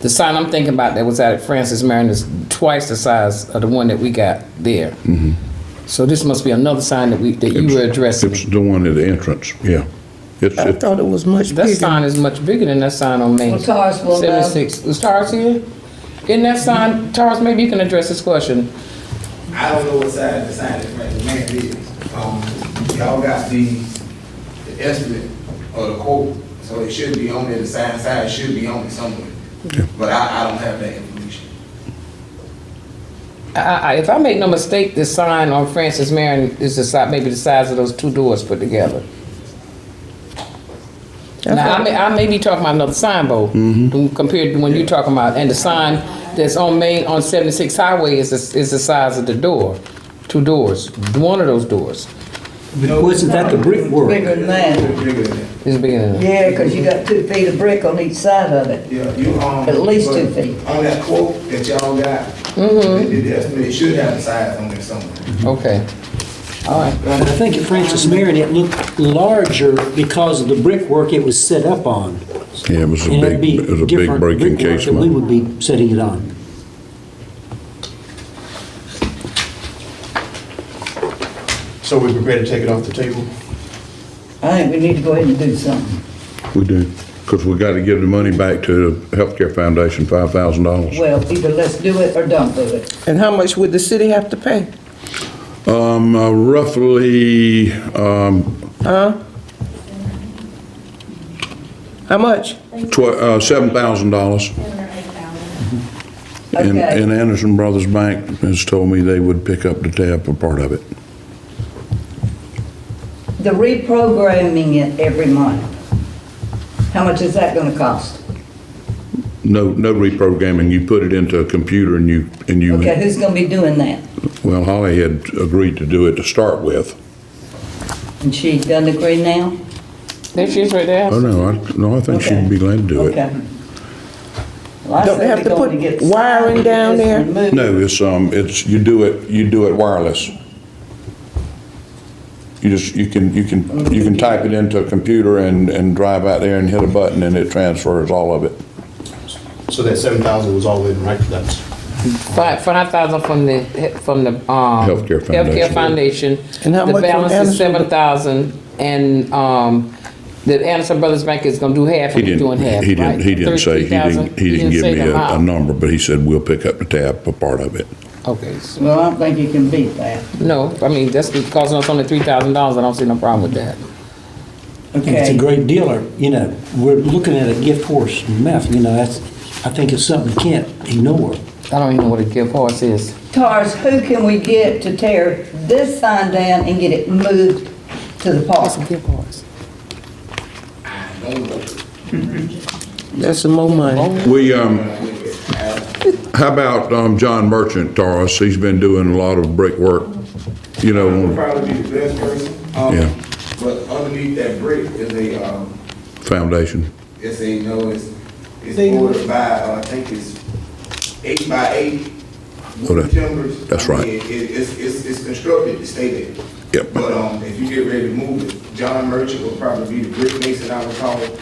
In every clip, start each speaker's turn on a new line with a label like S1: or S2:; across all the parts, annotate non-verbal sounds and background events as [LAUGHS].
S1: The sign I'm thinking about that was out at Francis Marion is twice the size of the one that we got there. So this must be another sign that we, that you were addressing.
S2: It's the one at the entrance, yeah. It's,
S3: I
S2: it's,
S3: thought it was much
S1: That
S3: bigger.
S1: sign is much bigger than that sign on Main.
S4: Well, Tars will uh, know.
S1: Seventy-six, is Tars here? Isn't that sign, Tars, maybe you can address this question.
S5: I don't know what side the sign is, right, the man is. Um, y'all got the, the estimate or the quote, so it should be on there, the sign, sign should be on it somewhere. But I, I don't have that information.
S1: I, I, if I make no mistake, this sign on Francis Marion is the size, maybe the size of those two doors put together. Now, I may, I may be talking about another sign, Bo, than compared to when you're talking about, and the sign that's on Main, on 76 Highway is, the- is the size of the door, two doors, one of those doors
S5: No,
S6: Wasn't that the brick work?
S4: Bigger than that.
S5: It's Bigger than that.
S1: is bigger than that.
S4: Yeah, 'cause you got two feet of brick on each side of it.
S5: Yeah, you, um.
S4: At least
S5: but
S4: two feet. Mm-hmm.
S5: On that quote that y'all got, the, the estimate, it should have the size on there somewhere.
S1: Okay, all right.
S6: And I think at Francis Marion, it looked larger because of the brickwork it was set up on.
S2: yeah, it was a
S6: And
S2: big,
S6: it'd be
S2: it was a big
S6: different
S2: break
S6: brickwork That we
S2: encasement.
S6: would be setting it on.
S7: So we prepare to take it off the table?
S4: I think we need to go ahead and do something.
S2: We do, because we got to give the money back to the Healthcare Foundation, five thousand dollars.
S4: Well, either let's do it or don't do it.
S3: And how much would the city have to pay?
S2: Um, uh, roughly, um,
S3: How much?
S2: tw- uh, seven thousand dollars. And,
S4: Okay.
S2: and Anderson Brothers Bank has told me they would pick up the tab for part of it.
S4: The reprogramming it every month, how much is that gonna cost?
S2: No, no reprogramming. You put it into a computer and you, and you,
S4: Okay, who's gonna be doing that?
S2: well, Holly had agreed to do it to start with.
S4: And she doesn't agree now?
S1: There she is right there.
S2: Oh, no, I, no, I think she'd be glad to do it.
S4: Okay. Well, I
S3: Don't they
S4: said
S3: have
S4: we
S3: to
S4: going
S3: put
S4: get
S3: wiring
S4: some-
S3: down
S4: get
S3: there?
S4: removed.
S2: No, it's, um, it's, you do it, you do it wireless. You just, you can, you can, you can type it into a computer and, and drive out there and hit a button and it transfers all of it.
S7: So that seven thousand was all in, right? That's,
S1: Five, five thousand from the, from the, um.
S2: Healthcare Foundation.
S1: Healthcare Foundation.
S3: And how much
S1: The
S3: from
S1: balance is
S3: Anderson?
S1: seven thousand, and, um, the Anderson Brothers Bank is gonna do half,
S2: He
S1: and we're
S2: didn't,
S1: doing half,
S2: he didn't,
S1: right?
S2: he didn't say, he didn't,
S1: 33,000?
S2: he didn't give
S1: say
S2: me
S1: the
S2: a, a
S1: amount.
S2: number, but he said, we'll pick up the tab for part of it.
S1: Okay, so,
S4: Well, I don't think you can beat that,
S1: no, I mean, that's costing us only three thousand dollars, I don't see no problem with that.
S6: And it's
S4: okay?
S6: a great dealer, you know, we're looking at a gift horse and meth, you know, that's, I think it's something you can't ignore.
S1: I don't even know what a gift horse is.
S4: Tars, who can we get to tear this sign down and get it moved to the park?
S1: gift horse.
S5: I don't know.
S3: That's some more money.
S2: We, um, how about, um, John Merchant, Taurus? He's been doing a lot of brick work, you know,
S5: Would
S2: on
S5: probably be the best person. Um,
S2: Yeah.
S5: But underneath that brick is a, um,
S2: foundation.
S5: It's a, no, it's, it's ordered by, uh, I think it's eight by eight
S2: Okay.
S5: wood timbers.
S2: Oh, That's
S5: I mean,
S2: right.
S5: It, it- it's, it's, it's constructed to stay there.
S2: Yep.
S5: But, um, if you get ready to move it, John Merchant will probably be the brick mason I would call it.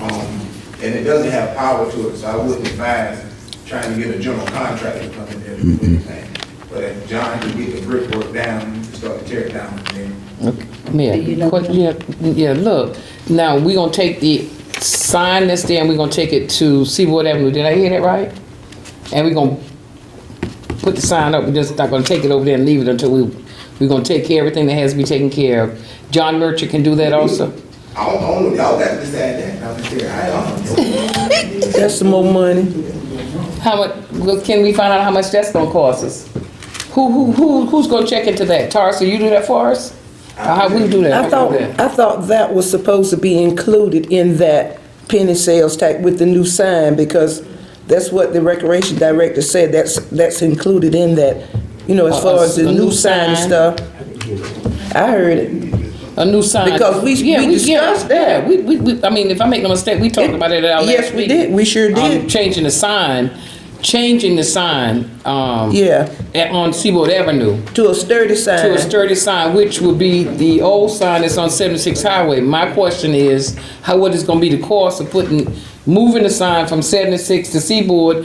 S5: Um, and it doesn't have power to it, so I wouldn't advise trying to get a general contractor to come in there and do
S2: Mm-hmm.
S5: anything. But if John can get the brickwork down, you can start to tear it down from there.
S4: you
S1: Yeah,
S4: know
S1: que-
S4: that?
S1: yeah, yeah, look, now, we are gonna take the sign that's there, and we are gonna take it to Seaboard Avenue, did I hear that right? And we are gonna put the sign up, we're just not gonna take it over there and leave it until we, we are gonna take care of everything that has to be taken care of. John Merchant can do that also?
S5: I don't, I don't, know. y'all got to decide that, I'm just there, I don't
S2: [LAUGHS]
S5: know.
S3: That's some more money.
S1: How much, well, can we find out how much that's gonna cost us? Who, who, who, who's gonna check into that? Tarsa, you do that for us? Or how we do that?
S3: I thought, I thought that was supposed to be included in that penny sales tax with the new sign because that's what the recreation director said, that's, that's included in that, you know, as far as Uh, the new sign and stuff. I heard it.
S1: A new sign.
S3: Because we-
S1: Yeah, yeah,
S3: we discussed that.
S1: Yeah, we, we, we, I mean, if I make no mistake, we talked about it at our last
S3: Yes, we
S1: meeting.
S3: did, we sure
S1: Um,
S3: did.
S1: changing the sign, changing the sign, um.
S3: Yeah, Uh-huh.
S1: at- on Seaboard Avenue
S3: to a sturdy sign.
S1: to a sturdy sign, which would be the old sign that's on seventy-six highway. My question is, how, what is gonna be the cost of putting moving the sign from seventy-six to Seaboard